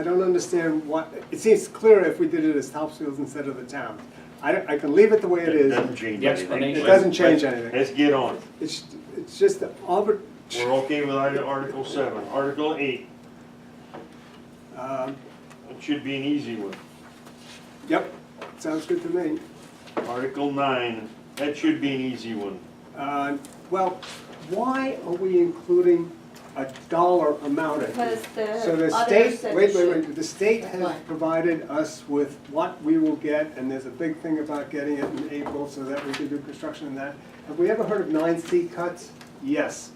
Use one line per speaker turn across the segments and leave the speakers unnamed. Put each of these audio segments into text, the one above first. I don't understand what, it seems clearer if we did it as Topsfields instead of the town. I, I can leave it the way it
It
is.
doesn't change
The
anything.
explanation.
It doesn't change
Let's-
anything.
Let's get on. it.
It's, it's just the arbit,
We're okay with item- Article seven. Article eight,
um,
it should be an easy one.
yep, sounds good to me.
Article nine, that should be an easy one.
Uh, Well, why are we including a dollar amount in here?
Because the
So the
other
state,
said
wait,
it
wait, wait, the state has
Why?
provided us with what we will get, and there's a big thing about getting it in April so that we can do construction and that. Have we ever heard of nine C cuts? Yes.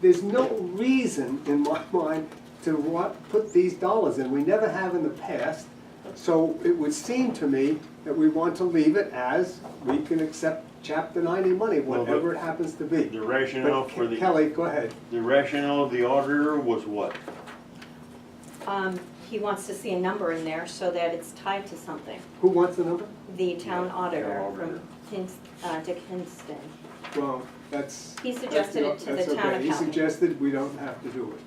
There's no reason in my mind to want, put these dollars in, we never have in the past. So it would seem to me that we want to leave it as, we can accept chapter ninety money,
Well, but-
whatever it happens to be.
The rationale for
But
the,
Kelly, go ahead.
the rationale of the auditor was what?
should. Um, he wants to see a number in there so that it's tied to something.
Who wants the number?
The town
Yeah,
auditor
town auditor.
from Hins- uh, Dick Hinston.
Well, that's.
He suggested it to the
that's
town
okay. He
accountant.
suggested we don't have to do it.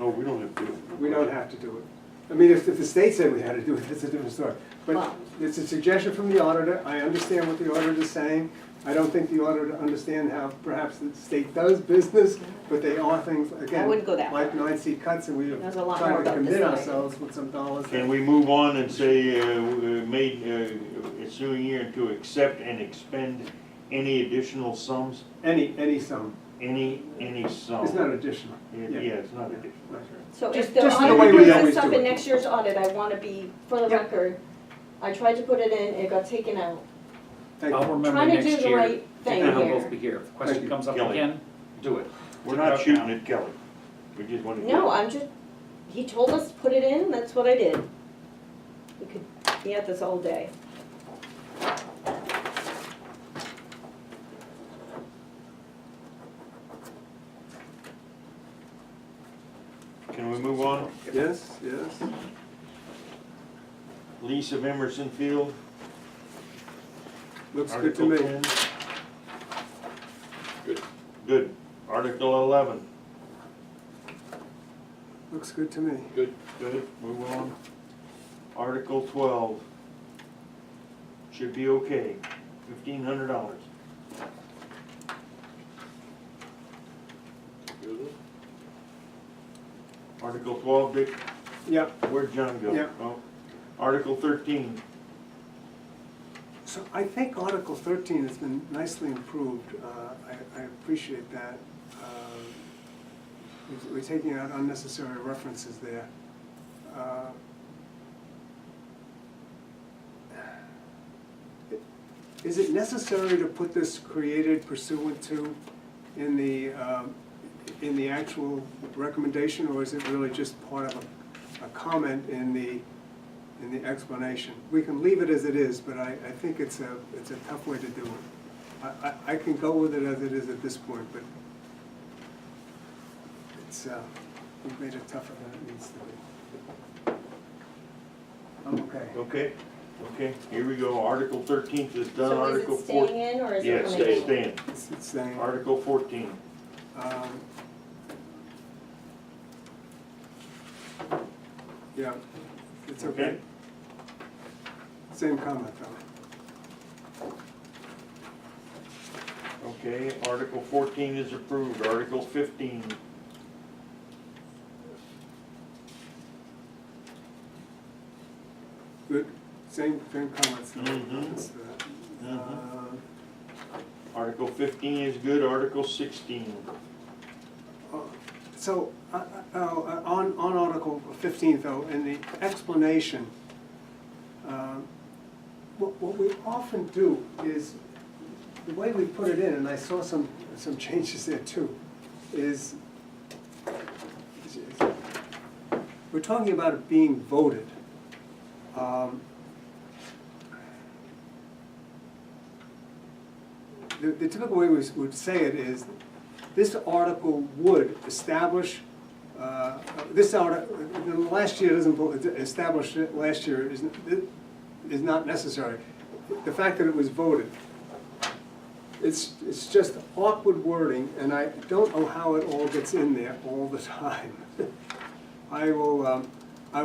Oh, we don't have to. do it.
We don't have to do it. I mean, if, if the state said we had to do it, that's a different story. But
Well-
it's a suggestion from the auditor. I understand what the auditor's saying. I don't think the auditor understands how perhaps the state does business, but they are things, again.
wouldn't go that
Like nine C cuts and we have
There's a lot more
tried to
about this
commit
than I-
ourselves with some dollars.
Can we move on and say, uh, uh, made, uh, ensuing year to accept and expend any additional sums?
Any, any sum.
Any, any sum?
It's not additional.
Oh. Yeah, yeah, it's not additional.
Right.
So
Just-
if the
just the
way
auditor
we
brings
always
this up
do
in
it.
next year's audit, I want to be, for the
Yeah.
record, I tried to put it in, it got taken out.
Thank
I'll
you.
remember
Trying to
next
do
year.
the right thing
Then we'll both
here.
be here. If the
Thank you.
question comes up
Kelly.
again, do it.
We're
Take it
not
out
shooting
now.
at Kelly. We just want to.
No, I'm just, he told us to put it in, that's what I did. We could be at this all day.
Can we move on?
Yes, yes.
Lease of Emerson Field,
Looks good to
Article
me.
ten. Good. Article eleven.
Looks good to me.
Good, move on. Article twelve. Should be okay, fifteen hundred dollars. Article twelve, Dick,
Yeah.
where'd John go?
Yeah.
Oh. Article thirteen,
So I think Article 13 has been nicely improved. Uh, I- I appreciate that. Um, we're- We're taking out unnecessary references there. Uh, Is it necessary to put this created pursuant to in the, um, in the actual recommendation? Or is it really just part of a- a comment in the, in the explanation. We can leave it as it is, but I, I think it's a, it's a tough way to do it. I, I, I can go with it as it is at this point, but it's, uh, we've made it tougher than it needs to be. I'm okay.
okay, okay, here we go, Article thirteen is done,
So is
Article
it
fourteen.
staying in or is it
Yes,
coming
it's
out?
staying,
It's, it's saying,
Article fourteen.
um, yeah, it's okay.
Okay.
Same comment though.
Okay, Article fourteen is approved, Article fifteen.
Good, same, same comments. though.
Mhm.
That's the-
Mhm.
Uh,
Article fifteen is good, Article sixteen.
So, uh, uh, uh, on, on Article 15 though, in the explanation, um, what, what we often do is, the way we put it in, and I saw some, some changes there too, is, is- we're talking about it being voted. Um, The, the typical way we s- would say it is, this article would establish, uh, this article, last year doesn't, vo- establish it last year is, is not necessary. The fact that it was voted, it's, it's just awkward wording, and I don't know how it all gets in there all the time. I will, um,